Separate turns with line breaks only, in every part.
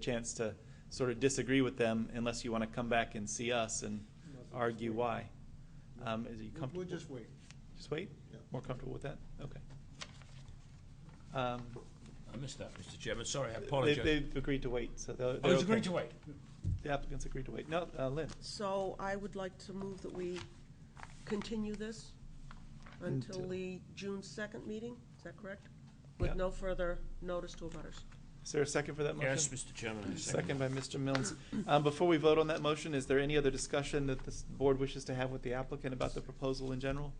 chance to sort of disagree with them unless you want to come back and see us and argue why. Um, Is you
We'll-
comfortable?
We'll just wait.
Just wait?
Yeah.
More comfortable with that? Okay. Um,
I missed that, Mr. Chairman. Sorry, I
they-
apologise.
They've agreed to wait, so they're.
I
they're okay.
was Oh, agreed to wait.
The applicants agreed to wait. No, uh, Lynn,
So I would like to move that we continue this until
Until-
the June second meeting, is that correct?
Yeah.
With no further notice to abutters.
is there a second for that motion?
Yes, Mr. Chairman, I
Second
second.
by Mr. Mills. Um, Before we vote on that motion, is there any other discussion that this board wishes to have with the applicant about the proposal in general?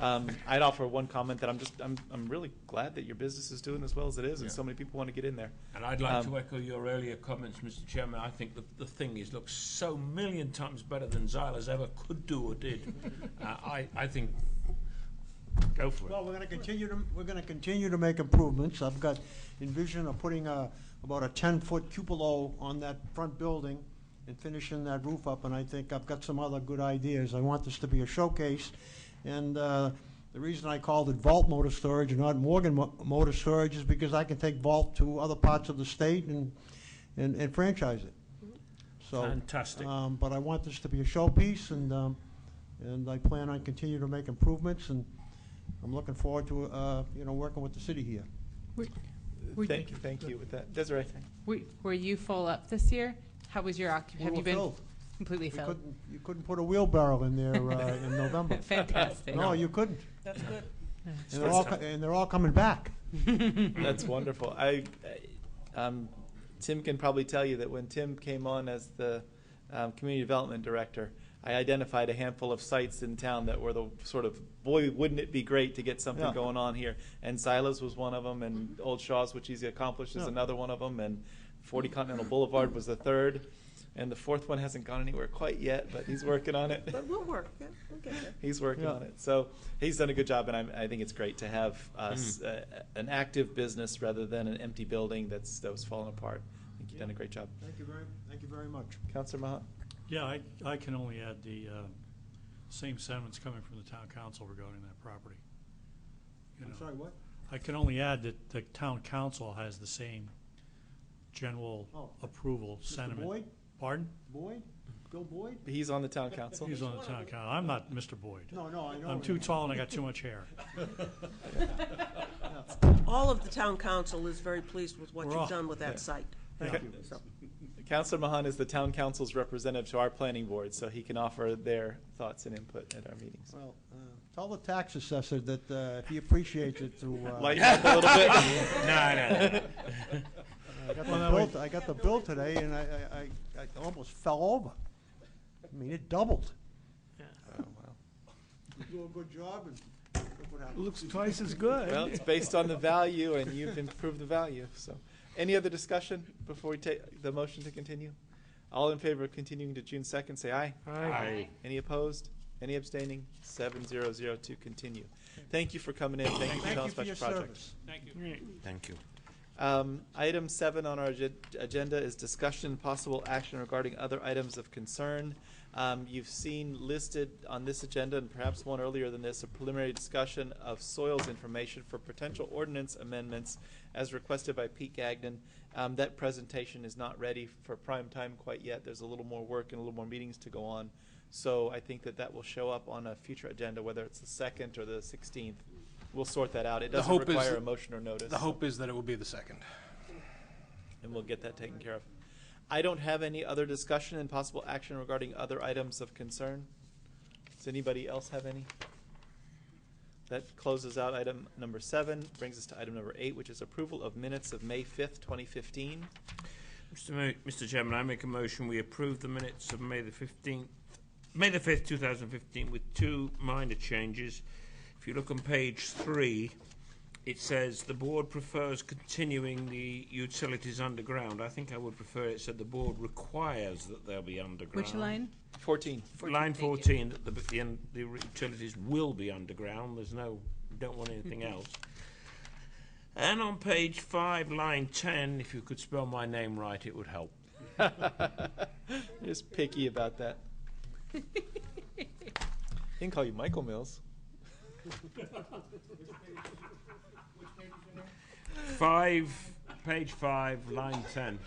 Um, I'd offer one comment that I'm just, I'm, I'm really glad that your business is doing as well as it is and so
Yeah.
many people want to get in there.
And I'd like
Um,
to echo your earlier comments, Mr. Chairman. I think that the thing is, looks so million times better than Xylas ever could do or did. Uh, I, I think, go for it.
Well, we're gonna continue to, we're gonna continue to make improvements. I've got envision of putting a, about a ten-foot cupola on that front building and finishing that roof up, and I think I've got some other good ideas. I want this to be a showcase. And, uh, the reason I called it Vault Motor Storage and not Morgan Mo- Motor Storage is because I can take Vault to other parts of the state and, and, and franchise it. So.
Fantastic.
Um, but I want this to be a showpiece, and, um, and I plan on continuing to make improvements, and I'm looking forward to, uh, you know, working with the city here.
Were- We-
Thank you, thank you with that. Desiree?
we- Were you full up this year? How was your occup,
We
have
were
you been
filled.
completely
You
filled?
couldn't, you couldn't put a wheelbarrow in there, uh, in November.
Fantastic.
No, you couldn't.
That's good.
And they're all, co- and they're all coming back.
Mm-hmm.
That's wonderful. I, I- um, Tim can probably tell you that when Tim came on as the um, community development director, I identified a handful of sites in town that were the sort of boy, wouldn't it be great to get something
Yeah.
going on here? And Silas was one of them, and Old Shaw's, which he's accomplished, is
Yeah.
another one of them, and Forty Continental Boulevard was the third, and the fourth one hasn't gone anywhere quite yet, but he's working on it.
But we'll work, yeah, we'll get there.
He's working
Yeah.
on it. So he's done a good job, and I, I think it's great to have us uh, an active business rather than an empty building that's that was falling apart. I think you've done a great job,
Thank you very, thank you very much.
Councilor Mahat.
Yeah, I, I can only add the uh, same sentiments coming from the town council regarding that property. You
I'm
know,
sorry, what?
I can only add that the town council has the same
Oh.
general approval sentiment.
Boyd?
Pardon?
Boyd? Bill Boyd?
He's on the town council.
He's on the town council. I'm not Mr. Boyd.
No, no, I know.
I'm too tall and I got too much hair.
All of the town council is very pleased with what
We're
you've
all-
done with
yeah.
that site.
Thank you.
So,
Councilor Mahan is the town council's representative to our planning board, so he can offer their thoughts and input at our meetings.
Well, uh, tell the tax assessor that, uh, if he appreciates it to, uh,
Lighten up a little bit.
No, no, no.
I got
Well,
the
no,
bill, I got the bill today, and I, I, I- I almost fell over. I mean, it doubled. Oh, You do a good job, and look what happened.
Looks twice as good.
Well, it's based on the value, and you've improved the value. So, any other discussion before we take the motion to continue? All in favor of continuing to June second, say aye.
Aye.
Any opposed? Any abstaining? Seven zero zero to continue. Thank you for coming in. Thank you for telling us about your project.
Thank you.
Um, Item seven on our agen- agenda is discussion and possible action regarding other items of concern. Um, You've seen listed on this agenda, and perhaps one earlier than this, a preliminary discussion of soils information for potential ordinance amendments as requested by Pete Gagnon. Um, That presentation is not ready for prime time quite yet. There's a little more work and a little more meetings to go on. So I think that that will show up on a future agenda, whether it's the second or the sixteenth. We'll sort that out. It
The
doesn't
hope is
require a
that-
motion or notice.
The hope is that it will be the second.
And we'll get that taken care of. I don't have any other discussion and possible action regarding other items of concern. Does anybody else have any? That closes out item number seven, brings us to item number eight, which is approval of minutes of May fifth, twenty fifteen.
Mr. Mo- Mr. Chairman, I make a motion we approve the minutes of May the 15th, May the 5th, 2015, with two minor changes. If you look on page three, it says the board prefers continuing the utilities underground. I think I would prefer it said the board requires that they'll be underground.
Which line?
Fourteen.
Line 14, that the, the, un- the utilities will be underground. There's no, don't want anything else. And on page five, line 10, if you could spell my name right, it would help.
Just picky about that. He can call you Michael Mills.
Five page five, line ten.